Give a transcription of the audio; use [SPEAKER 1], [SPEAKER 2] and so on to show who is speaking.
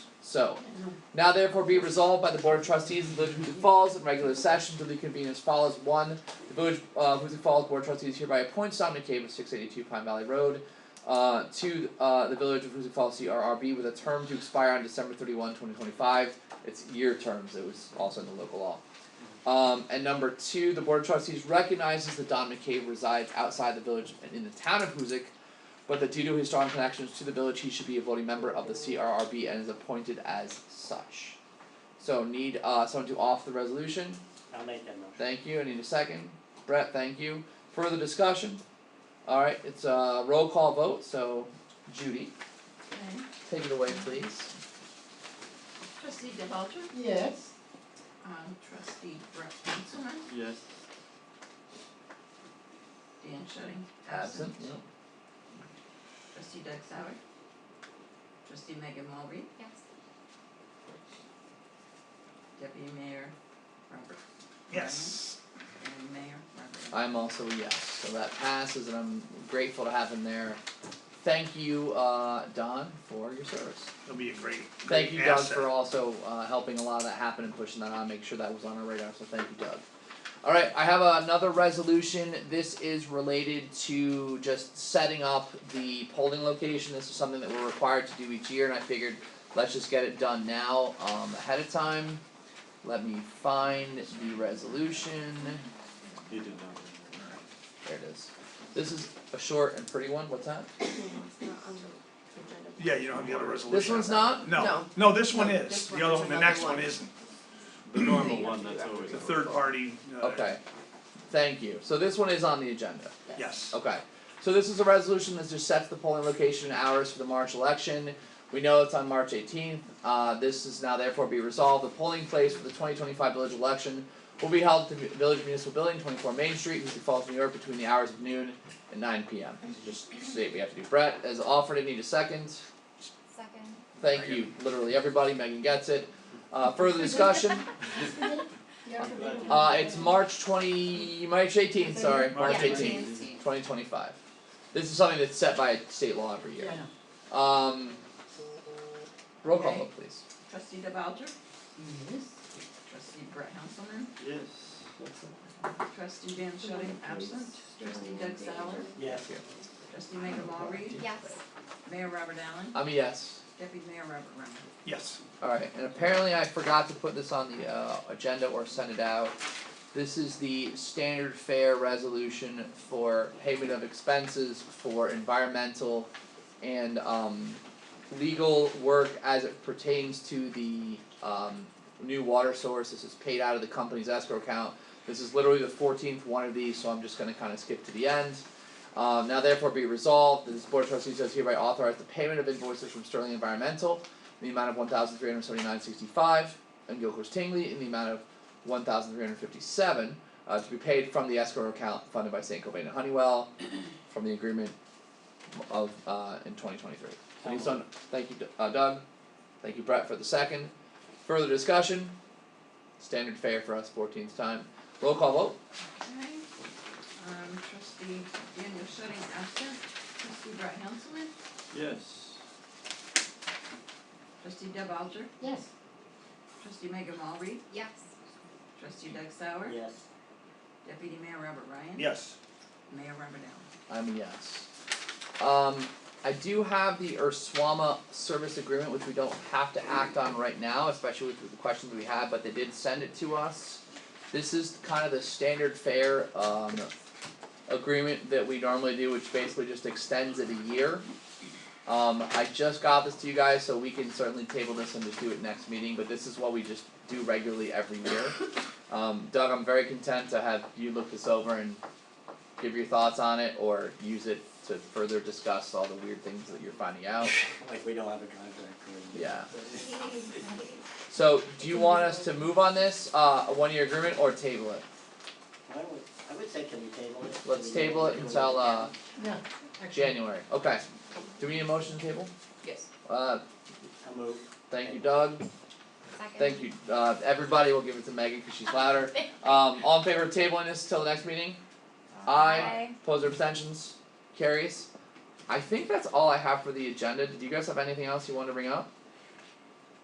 [SPEAKER 1] So, now therefore be resolved by the Board of Trustees of the Village of Huzik Falls in regular session duly convened as follows. One, the Village of Huzik Falls Board of Trustees hereby appoints Dominic Cave of six eighty-two Pine Valley Road uh to uh the Village of Huzik Falls CRRB with a term to expire on December 31, 2025. It's year terms, it was also in the local law. Um, and number two, the Board of Trustees recognizes that Don McCabe resides outside the village and in the town of Huzik, but that due to his strong connections to the village, he should be a voting member of the CRRB and is appointed as such. So need uh someone to off the resolution,
[SPEAKER 2] I'll make that motion.
[SPEAKER 1] thank you, I need a second, Brett, thank you, further discussion? Alright, it's a roll call vote, so Judy,
[SPEAKER 3] Okay.
[SPEAKER 1] take it away please.
[SPEAKER 3] Trustee DeBelcher,
[SPEAKER 4] Yes.
[SPEAKER 3] um, trustee Brett Hanselman,
[SPEAKER 2] Yes.
[SPEAKER 3] Dan Shudding,
[SPEAKER 1] Absent,
[SPEAKER 3] absent.
[SPEAKER 1] yeah.
[SPEAKER 3] Trustee Doug Sauer. Trustee Megan Mulberry,
[SPEAKER 5] Yes.
[SPEAKER 3] deputy mayor Robert.
[SPEAKER 6] Yes.
[SPEAKER 3] Ryan, And mayor Robert.
[SPEAKER 1] I'm also a yes, so that passes, and I'm grateful to have him there. Thank you, uh, Don, for your service.
[SPEAKER 6] Mm-hmm. It'll be a great, great
[SPEAKER 1] Thank you, Doug,
[SPEAKER 6] asset.
[SPEAKER 1] for also uh, helping a lot of that happen and pushing that on, make sure that was on our radar. So thank you, Doug. All right, I have another resolution. This is related to just setting up the polling location. This is something that we're required to do each year, and I figured let's just get it done now um, ahead of time. Let me find the resolution.
[SPEAKER 2] You did not.
[SPEAKER 1] There it is. This is a short and pretty one. What's that?
[SPEAKER 6] Yeah, you don't have the other resolution.
[SPEAKER 1] This one's not?
[SPEAKER 6] No,
[SPEAKER 4] No.
[SPEAKER 6] no, this one
[SPEAKER 4] No,
[SPEAKER 6] is,
[SPEAKER 4] this
[SPEAKER 6] the
[SPEAKER 4] one
[SPEAKER 6] other
[SPEAKER 4] is
[SPEAKER 6] one, the
[SPEAKER 4] another
[SPEAKER 6] next one
[SPEAKER 4] one.
[SPEAKER 6] isn't,
[SPEAKER 2] The normal one, that's always.
[SPEAKER 6] the third party, uh,
[SPEAKER 1] Okay. Thank you. So this one is on the agenda.
[SPEAKER 6] yes.
[SPEAKER 1] Okay. So this is a resolution that just sets the polling location and hours for the March election. We know it's on March eighteenth. Uh, this is now therefore be resolved. The polling place for the twenty twenty five village election will be held at the Village Municipal Building, twenty four Main Street, Houston Falls, New York, between the hours of noon and nine P M. Just state we have to do. Brett has offered. I need a second.
[SPEAKER 5] Second.
[SPEAKER 1] Thank you, literally everybody. Megan gets it. Uh, further discussion? Uh, it's March twenty, March eighteenth, sorry, March
[SPEAKER 5] Yeah.
[SPEAKER 1] eighteenth, twenty twenty five. This is something that's set by state law every year.
[SPEAKER 4] Yeah.
[SPEAKER 1] Um. Roll call
[SPEAKER 3] Okay.
[SPEAKER 1] vote, please.
[SPEAKER 3] Trustee DeBelcher,
[SPEAKER 4] Yes.
[SPEAKER 3] trustee Brett Hanselman,
[SPEAKER 2] Yes.
[SPEAKER 3] trustee Dan Shudding, absent. Trustee Doug Sauer,
[SPEAKER 2] Yes.
[SPEAKER 3] trustee Megan Mulberry,
[SPEAKER 5] Yes.
[SPEAKER 3] mayor Robert Allen,
[SPEAKER 1] I'm a yes.
[SPEAKER 3] deputy mayor Robert Ryan.
[SPEAKER 6] Yes,
[SPEAKER 1] Alright, and apparently I forgot to put this on the uh agenda or send it out. This is the standard fare resolution for payment of expenses for environmental and um legal work as it pertains to the um new water source. This is paid out of the company's escrow account. This is literally the fourteenth one of these, so I'm just gonna kinda skip to the end. Um now therefore be resolved, that this board of trustees does hereby authorize the payment of invoices from Sterling Environmental in the amount of one thousand three hundred seventy nine sixty five, and Gilchrist Tingley in the amount of one thousand three hundred fifty seven uh to be paid from the escrow account funded by St. Cobain and Honeywell from the agreement of uh in twenty twenty three. So need some- thank you uh, Doug, thank you Brett for the second. Further discussion, standard fare for us fourteenth time. Roll call vote,
[SPEAKER 3] Okay, um, trustee Daniel Shudding, absent. Trustee Brett Hanselman,
[SPEAKER 2] Yes.
[SPEAKER 3] trustee Deb Alger,
[SPEAKER 4] Yes.
[SPEAKER 3] trustee Megan Mulberry,
[SPEAKER 5] Yes.
[SPEAKER 3] trustee Doug Sauer,
[SPEAKER 2] Yes.
[SPEAKER 3] deputy mayor Robert Ryan,
[SPEAKER 6] yes,
[SPEAKER 3] mayor Robert Allen.
[SPEAKER 1] I'm a yes. Um I do have the Urswama service agreement, which we don't have to act on right now, especially with the questions we had, but they did send it to us. This is kind of the standard fare um agreement that we normally do, which basically just extends it a year. Um I just got this to you guys, so we can certainly table this and just do it next meeting, but this is what we just do regularly every year. Um Doug, I'm very content to have you look this over and give your thoughts on it or use it to further discuss all the weird things that you're finding out.
[SPEAKER 2] Like we don't have a contract.
[SPEAKER 1] Yeah. So, do you want us to move on this, uh, a one year agreement or table it?
[SPEAKER 7] I would, I would say can we table it?
[SPEAKER 1] Let's
[SPEAKER 7] Can we-
[SPEAKER 1] table it
[SPEAKER 7] can we-
[SPEAKER 1] until uh
[SPEAKER 4] No.
[SPEAKER 1] January, okay. Do we need a motion to table?
[SPEAKER 3] Yes.
[SPEAKER 1] Uh,
[SPEAKER 7] I'll move.
[SPEAKER 1] thank you Doug,
[SPEAKER 5] Second.
[SPEAKER 1] thank you, uh, everybody, we'll give it to Megan cause she's louder. Um, all in favor of tabling this till the next meeting? Aye,
[SPEAKER 5] Aye.
[SPEAKER 1] opposed or abstentions, carries. I think that's all I have for the agenda, did you guys have anything else you wanted to bring up?